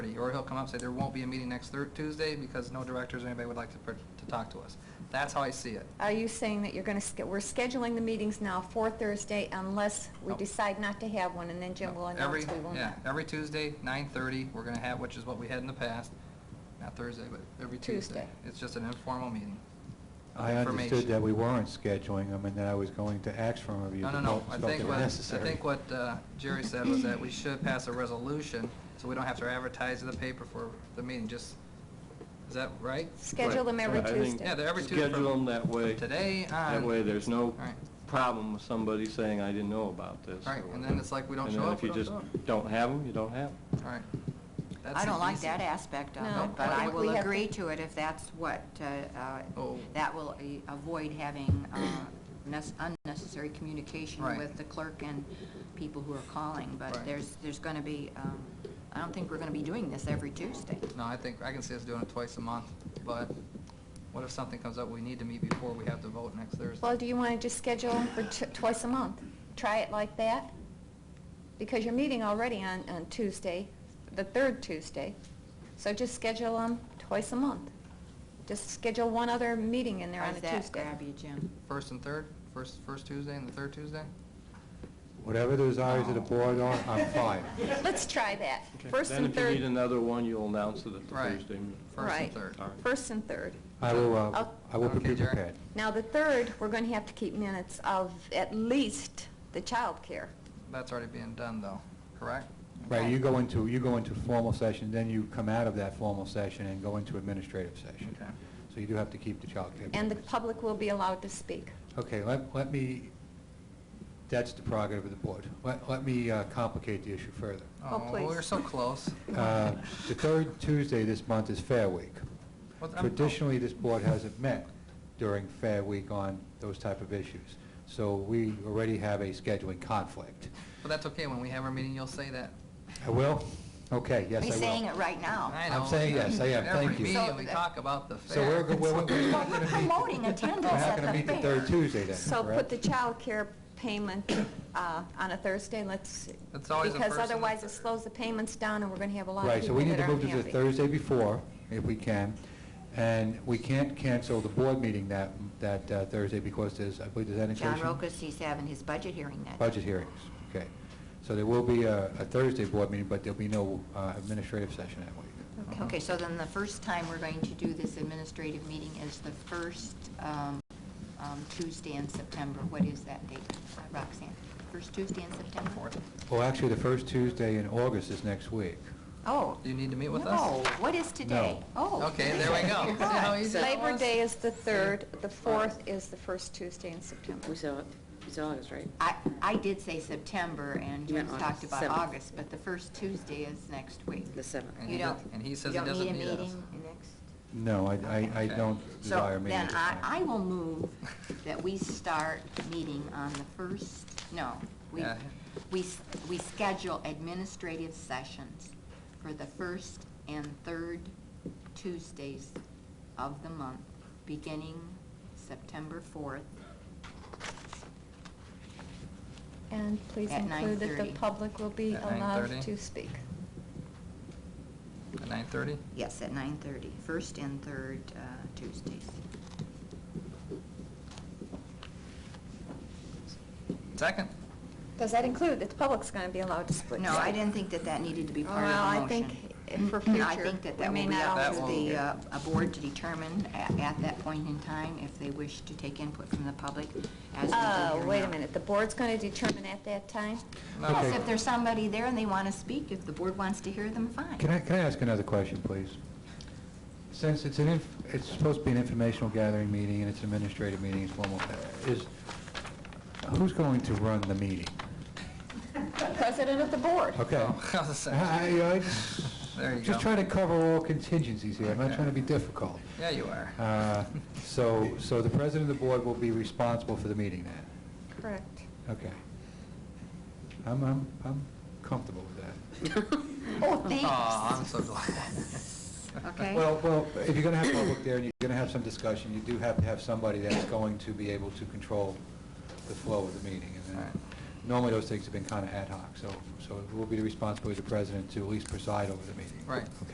or he'll come up and say, there won't be a meeting next Thur- Tuesday because no directors or anybody would like to, per- to talk to us. That's how I see it. Are you saying that you're going to, we're scheduling the meetings now for Thursday unless we No. decide not to have one, and then Jim will Every- announce we will Yeah, not? every Tuesday, 9:30, we're going to have, which is what we had in the past, not Thursday, but every Tuesday. Tuesday. It's just an informal meeting. of I understood information. that we weren't scheduling them and that I was going to ask for a review. No, no, but no. I felt they think were what, I necessary. think what uh, Jerry said was that we should pass a resolution, so we don't have to advertise in the paper for the meeting, just, is that right? Schedule them every Right, I think- Tuesday. Yeah, they're every Tuesday. from- Schedule them that way. from Today on. That way, there's no All right. problem with somebody saying, I didn't know about this. All right, and or then whatever. it's like, we don't And show then up, we don't show if you just don't have them, you don't have 'em. All right. That's I the don't like easy- that aspect of No, it, but I I think we will have agree to- to it if that's what, uh, uh, Oh. that will uh, avoid having uh, nes- unnecessary communication Right. with the clerk and people who are calling, but Right. there's, there's going to be, um, I don't think we're going to be doing this every Tuesday. No, I think, I can see us doing it twice a month, but what if something comes up, we need to meet before we have to vote next Thursday? Well, do you want to just schedule them for t- twice a month? Try it like that? Because you're meeting already on, on Tuesday, the third Tuesday, so just schedule them twice a month. Just schedule one other meeting in there on a How's that Tuesday. grab you, Jim? First and third, first, first Tuesday and the third Tuesday? Whatever the desires of the board are, I'm fine. Let's try that. First and Then if you need third, another one, you'll announce it at the Right. Thursday meeting. First and Right. third. All right. first and third. I will, uh, I'll- I will be Okay, Jerry. prepared. Now, the third, we're going to have to keep minutes of at least the child care. That's already being done, though, correct? Right, Right. you go into, you go into formal session, then you come out of that formal session and go into administrative session. Okay. So you do have to keep the childcare. And the papers. public will be allowed to speak. Okay, let, let me, that's the prerogative of the board. Let, let me uh, complicate the issue further. Oh, please. We're so close. Uh, The third Tuesday this month is Fair Week. Well, I'm- oh, Traditionally, this board hasn't met during Fair Week on those type of issues. So we already have a scheduling conflict. But that's okay, when we have our meeting, you'll say that. I will? Okay, yes, I will. He's saying it right now. I I'm know. saying yes, I am. Thank Every you. meeting, So we that- talk about the fair. So we're, go- we're, we're we're Well, not we're going to meet... promoting attendance at We're not the going to meet the fair. third Tuesday then, So put correct? the child care payment uh, on a Thursday, and let's, It's always the because first and the otherwise it third. slows the payments down, and we're going to have a lot of Right, so people we need that to aren't move happy. to the Thursday before, if we can, and we can't cancel the board meeting that, that uh, Thursday because there's, I believe, there's any John occasion- Rokas, he's having his budget hearing that. Budget hearings, okay. So there will be a a Thursday board meeting, but there'll be no uh, administrative session that week. Okay. Okay, so then the first time we're going to do this administrative meeting is the first um, um, Tuesday in September. What is that date, Roxanne? First Tuesday in September? Fourth. Well, actually, the first Tuesday in August is next week. Oh. You need to meet with us? No, what is today? Oh. Okay, there we go. See how easy that Labor was? Day is the third, the fourth is the first Tuesday in September. We saw, it. it's August, right? I, I did say September, and You Jim meant talked August, about seventh. August, but the first Tuesday is next week. The seventh. And You he don't, does- and he says you he don't need doesn't a need us. meeting next? No, I, I- I Okay. don't desire a meeting at So this then I, I time. will move that we start meeting on the first, no, we, Yeah. we, s- we schedule administrative sessions for the first and third Tuesdays of the month, beginning September 4th. And please At include that the 9:30. public will be At allowed 9:30? to speak. At 9:30? Yes, at 9:30, first and third uh, Tuesdays. Second? Does that include that the public's going to be allowed to speak? No, I didn't think that that needed to be part of Well, I the think motion. Mm-hmm. if for I future, think that we that may will be not up all to do the, that. uh, a board to determine at, at that point in time if they wish to take input from the public as we do Uh, here wait a now. minute, the board's going to determine at that time? Yes, Okay. if there's somebody there and they want to speak, if the board wants to hear them, Can fine. I, can I ask another question, please? Since it's an, inf- it's supposed to be an informational gathering meeting, and it's an administrative meeting, it's formal, is, who's going to run the meeting? President of the board. Okay. Oh, I was I, gonna say. I- I just, There you go. just trying to cover all contingencies here, I'm not Okay. trying to be difficult. Yeah, you are. Uh, So, so the president of the board will be responsible for the meeting then? Correct. Okay. I'm, I'm, I'm comfortable with that. Oh, Aw, I'm thanks. so glad. Okay. Well, well, if you're gonna have public there, and you're gonna have some discussion, you do have to have somebody that's going to be able to control the flow of the meeting. And then Right. Normally, those things have been kind of ad hoc, so, so it will be the responsibility of the president to at least preside over the meeting. Right. Okay.